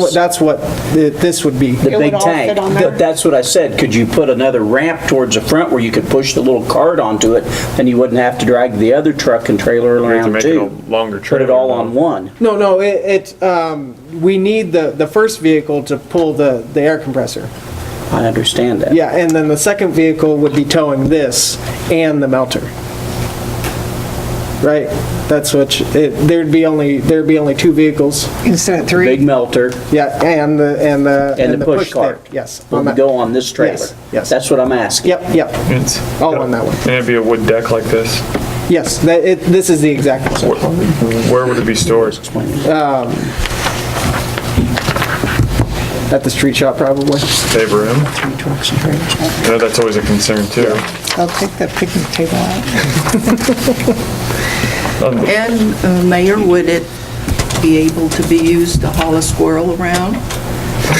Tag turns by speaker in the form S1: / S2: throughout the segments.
S1: Well, That's what th- this would be.
S2: The big
S3: would all
S2: tank.
S3: fit on
S2: Th-
S3: there?
S2: That's what I said, could you put another ramp towards the front where you could push the little cart onto it, and you wouldn't have to drag the other truck and trailer
S4: have to
S2: around
S4: make it a
S2: too?
S4: longer
S2: Put it
S4: trailer,
S2: all
S4: though.
S2: on one.
S1: No, no, it, it, um, we need the, the first vehicle to pull the, the air compressor.
S2: I understand that.
S1: Yeah, and then the second vehicle would be towing this and the melter. Right? That's what, you- it, there'd be only, there'd be only two vehicles.
S3: Instead of
S2: Big
S3: three,
S2: melter
S1: Yeah, and the, and the.
S2: and the push cart.
S1: there, Yes.
S2: Will
S1: on that-
S2: go on this trailer.
S1: Yes, yes.
S2: That's what I'm asking.
S1: Yep, yep,
S4: It's-
S2: Oh,
S1: all on that one.
S4: And it'd be a wood deck like this.
S1: Yes, that, it, this is the exact,
S4: Where- Where would it be stored?
S1: at the street shop probably.
S4: Save room? No, That's always a concern too.
S3: I'll take that picnic table out.
S5: And uh, Mayor, would it be able to be used to haul a squirrel around?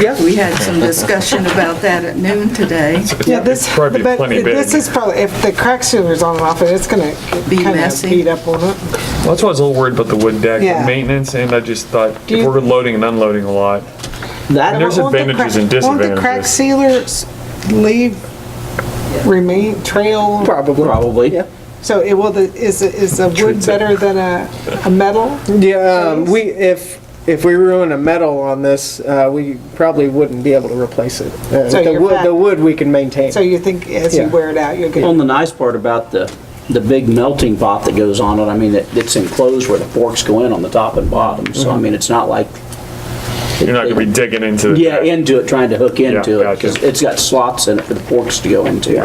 S1: Yeah.
S5: We had some discussion about that at noon today.
S3: Yeah, this,
S4: It'd
S3: but
S4: probably be plenty big.
S3: this is probably, if the crack sealer's on and off, it's gonna
S5: Be
S3: kind of
S5: messy.
S3: beat up on it.
S4: Well, That's why I was a little worried about the wood deck
S3: Yeah.
S4: maintenance, and I just thought
S3: Do
S4: if
S3: you-
S4: we're loading and unloading a lot,
S2: That,
S4: There's
S3: Won't the
S4: advantages and
S3: crack- Won't the crack
S4: disadvantages.
S3: sealers leave, remain, trail?
S1: Probably.
S2: probably.
S1: Yeah.
S3: So it will, the- is, is a wood
S4: Treats it.
S3: better than a, a metal?
S1: Yeah, um, we, if, if we ruin a metal on this, uh, we probably wouldn't be able to replace it. Uh,
S3: So
S1: The
S3: you're
S1: wood,
S3: back-
S1: the wood we can maintain.
S3: So you think as
S1: Yeah.
S3: you wear it out, you'll
S2: Well,
S3: get,
S2: and the nice part about the, the big melting pot that goes on it, I mean, it- it's enclosed where the forks go in on the top and bottom, so I
S1: Mm-hmm.
S2: mean, it's not like.
S4: you're not gonna be digging into the
S2: Yeah,
S4: deck.
S2: into it, trying to hook into it,
S4: gotcha.
S2: because it's got slots in it for the forks to go into.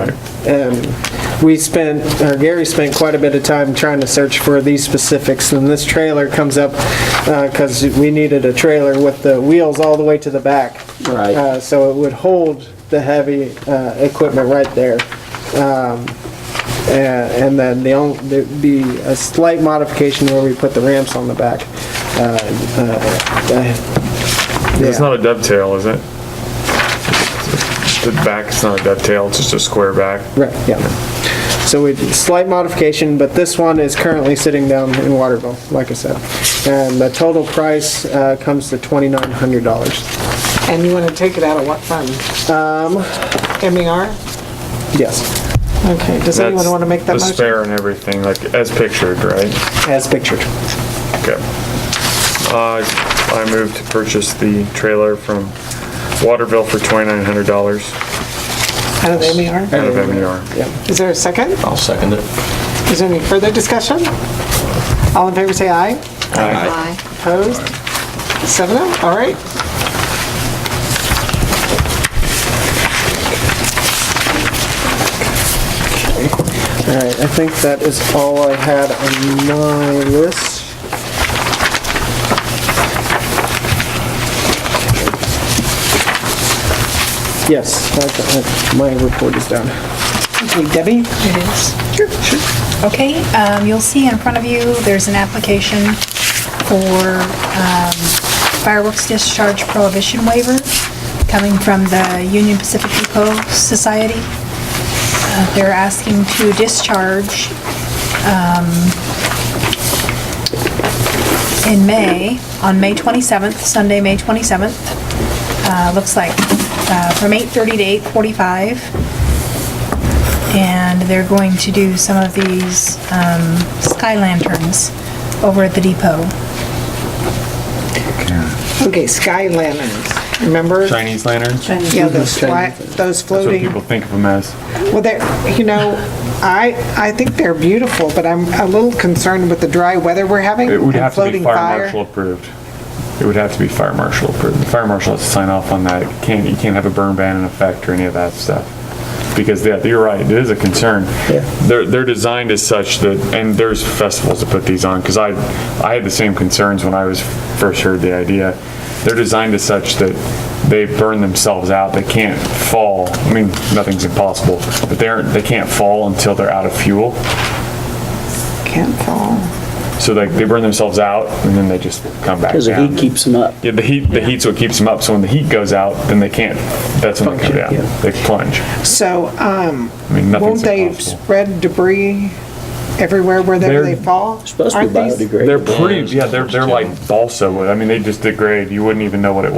S1: Um, We spent, or Gary spent quite a bit of time trying to search for these specifics, and this trailer comes up, because we needed a trailer with the wheels all the way to the back.
S2: Right.
S1: Uh, So it would hold the heavy uh, equipment right there. Um, a- And then the only, there'd be a slight modification where we put the ramps on the back. Uh, uh, uh,
S4: It's
S1: yeah.
S4: not a dovetail, is it? The back's not a dovetail, it's just a square back.
S1: Right, yeah. So we, slight modification, but this one is currently sitting down in Waterville, like I said. And the total price uh, comes to $2,900.
S3: and you wanna take it out of what fund? Um. MER?
S1: Yes,
S3: Okay, does anyone
S4: That's
S3: wanna make that
S4: The
S3: motion?
S4: spare and everything, like as pictured, right?
S1: as pictured.
S4: Okay. Uh, I moved to purchase the trailer from Waterville for twenty-nine hundred dollars
S3: Out of E MER?
S4: out of E MER.
S3: Is there a second?
S6: I'll second it.
S3: Is there any further discussion? All in favor, say aye.
S5: Aye.
S3: Opposed? Seven oh, all right.
S1: All right, I think that is all I had on my list. Yes, I- I- my report is done.
S3: Okay, Debbie?
S7: Okay, um, you'll see in front of you, there's an application for um, fireworks discharge prohibition waiver coming from the Union Pacific Eco Society. Uh, They're asking to discharge um, in May, on May 27th, Sunday, May 27th. Uh, Looks like uh, from 8:30 to 8:45 and they're going to do some of these um, sky lanterns over at the depot.
S3: Okay, sky lanterns, remember?
S6: Chinese lanterns?
S3: Yeah, those fly, those
S4: That's what
S3: floating,
S4: people think of them as.
S3: well, they're, you know, I, I think they're beautiful, but I'm a little concerned with the dry weather we're having.
S4: It would
S8: and
S4: have to be
S3: floating
S8: fire
S3: fire.
S8: marshal approved. It would have to be fire marshal approved. The fire marshal has to sign off on that. You Can't, you can't have a burn ban in effect or any of that stuff. Because, yeah, you're right, it is a concern. They're, they're designed as such that, and there's festivals that put these on, because I, I had the same concerns when I was first heard the idea. They're designed as such that they burn themselves out, they can't fall. I mean, nothing's impossible, but they aren't, they can't fall until they're out of fuel.
S3: Can't fall.
S8: So like, they burn themselves out, and then they just come back down.
S2: Because the heat keeps them up.
S8: Yeah, the heat, the heat's what keeps them up, so when the heat goes out, then they can't, that's when they come down, they plunge.
S3: So, um,
S8: I mean,
S3: won't
S8: nothing's
S3: they
S8: impossible.
S3: spread debris everywhere wherever
S8: They're-
S3: they fall?
S2: Supposed to be
S3: Aren't these-
S2: biodegradable.
S8: They're pretty, yeah, they're, they're like balsa wood, I mean, they just degrade, you wouldn't even know what it was.